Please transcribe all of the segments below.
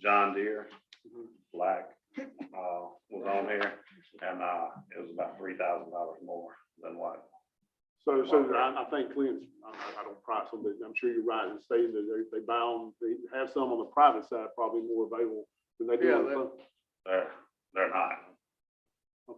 John Deere, Mm-hmm. black, uh, was on here, and, uh, it was about three thousand dollars more than what. So, so I, I think Clint's, I, I- I don't price them, but I'm sure you're right in stating that they, they buy them, they have some on the private side probably more available than they do on the Yeah, public. They're, they're not,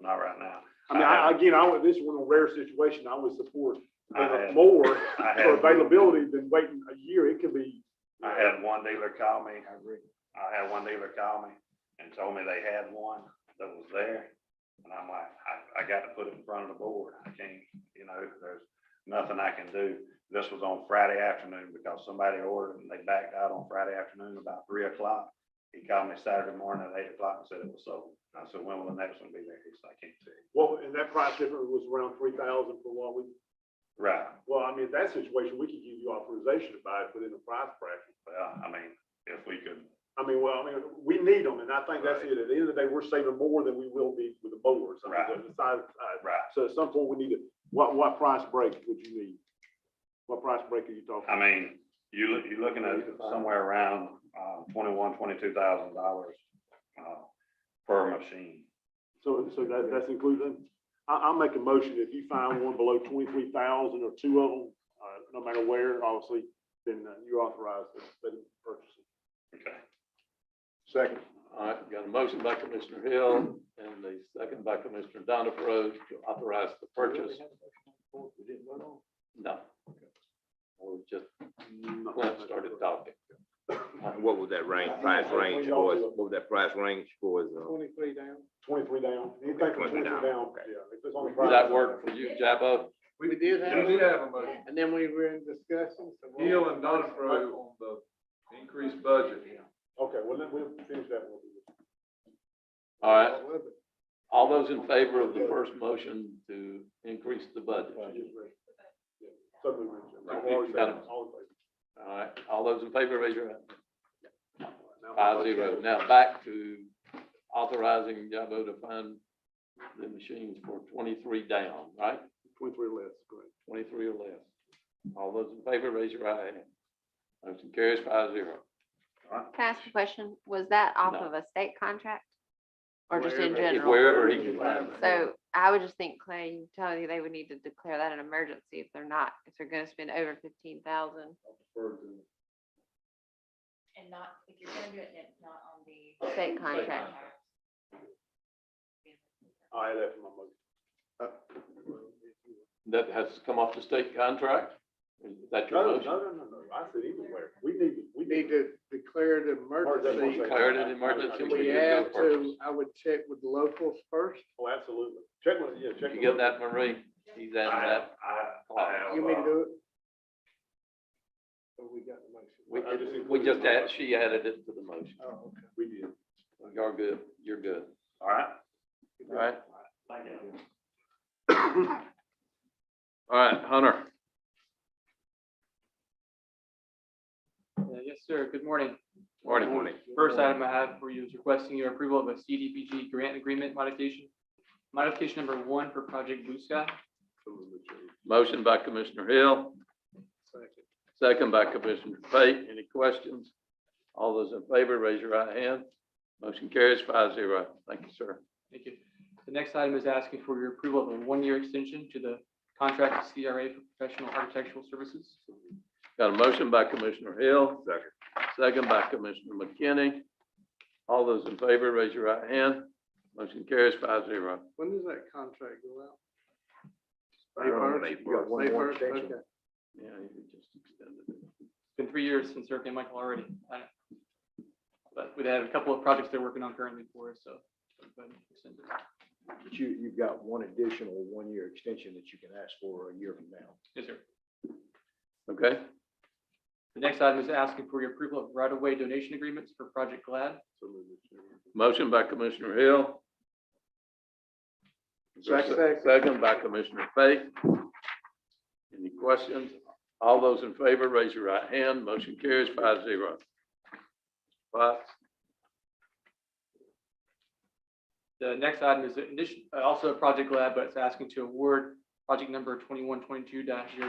not right now. I mean, I, again, I, would- this is one of the rare situations I would support uh, I had- more I for had, availability than waiting a year. It could be. I had one dealer call me, I had one dealer call me and told me they had one that was there. And I'm like, I, I got to put it in front of the board. I can't, you know, there's nothing I can do. This was on Friday afternoon because somebody ordered and they backed out on Friday afternoon about three o'clock. He called me Saturday morning at eight o'clock and said it was sold. I said, when will the next one be there? He said, I can't tell you. Well, and that price difference was around three thousand for what we, Right. well, I mean, in that situation, we could give you authorization to buy it within the price bracket. Well, I mean, if we could, I mean, well, I mean, we need them, and I think that's Right. it. At the end of the day, we're saving more than we will be with the boards. I mean, Right. the size- size. right. So at some point, we need to, what, what price break would you need? What price break are you talking? I mean, you look, you're looking at somewhere around, uh, twenty-one, twenty-two thousand dollars, uh, per machine. So, so that, that's included. I, I'll make a motion, if you find one below twenty-three thousand or two of them, uh, no matter where, obviously, then uh, you're authorized to let them purchase it. Okay. Second. All right, got a motion by Commissioner Hill and a second by Commissioner Donna Froze to authorize the purchase. No. Or just Clint Mm, started talking. And Uh, What was that range, price range for, us? what was that price range for, us, uh, Twenty-three down. Twenty-three down. Anything from 23 twenty-three down, down, okay. yeah. if it's on the Does price- that work for you, Jabbo? We did have. We did have a motion. And then we were in discussion. so we'll- Hill and Donifro on the increased budget. Okay, well, then we'll finish that one. All right, all those in favor of the first motion to increase the budget? Suddenly. Right, we've got 'em. All right, all those in favor, raise your hand. Five zero. Now back to authorizing Jabbo to find the machines for twenty-three down, right? Twenty-three less, correct. Twenty-three or less. All those in favor, raise your right hand. Motion carries five zero. Can I ask a question? Was that off No. of a state contract? Or just in Wherever it- general? Wherever he can find it. So I would just think, Clay, you tell you they would need to declare that an emergency if they're not, if they're gonna spend over fifteen thousand. And not, if you're gonna do it, then not on the. State contract. I left my motion. Uh, That has come off the state contract? Is that No, your no, no, motion? no, no, I said anywhere. We need, to- we We need to declare the emergency. Declared an emergency. We do go have first. to, I would check with locals first. Oh, absolutely. Check with, yeah, check. with- You get that, Marie? He's I, adding have- that. I, I have, You mean to uh, do it? Or Oh, we got the motion? We, I just we just included- add, she added it to the motion. Oh, okay. We did. You're good. You're good. all right. All right. Thank you. All right, Hunter. Uh, Yes, sir. Good morning. Morning. morning? First item I have for you is requesting your approval of a CDBG grant agreement modification. Modification number one for Project Blue Sky. Motion by Commissioner Hill. Second by Commissioner Fate. Any questions? All those in favor, raise your right hand. Motion carries five zero. Thank you, sir. Thank you. The next item is asking for your approval of a one-year extension to the contract with CRA for professional architectural services. Got a motion by Commissioner Hill. Second. Second by Commissioner McKinney. All those in favor, raise your right hand. Motion carries five zero. When does that contract go out? April, May April. first? May first, okay. Yeah, you just extended it. It's been three years since Hurricane Michael already. I- But we have a couple of projects they're working on currently for us, so. but extend it. But you, you've got one additional one-year extension that you can ask for a year from now. Yes, sir. Okay, The next item is asking for your approval of right-of-way donation agreements for Project Glad. motion by Commissioner Hill. Second. Second by Commissioner Fate. Any questions? All those in favor, raise your right hand. Motion carries five zero. Five, The next item is addition- uh, also a Project Lab, but it's asking to award project number twenty-one twenty-two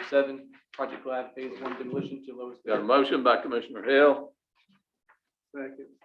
7 Project Lab Phase One demolition to lowest got a bidder. motion by Commissioner Hill. Second.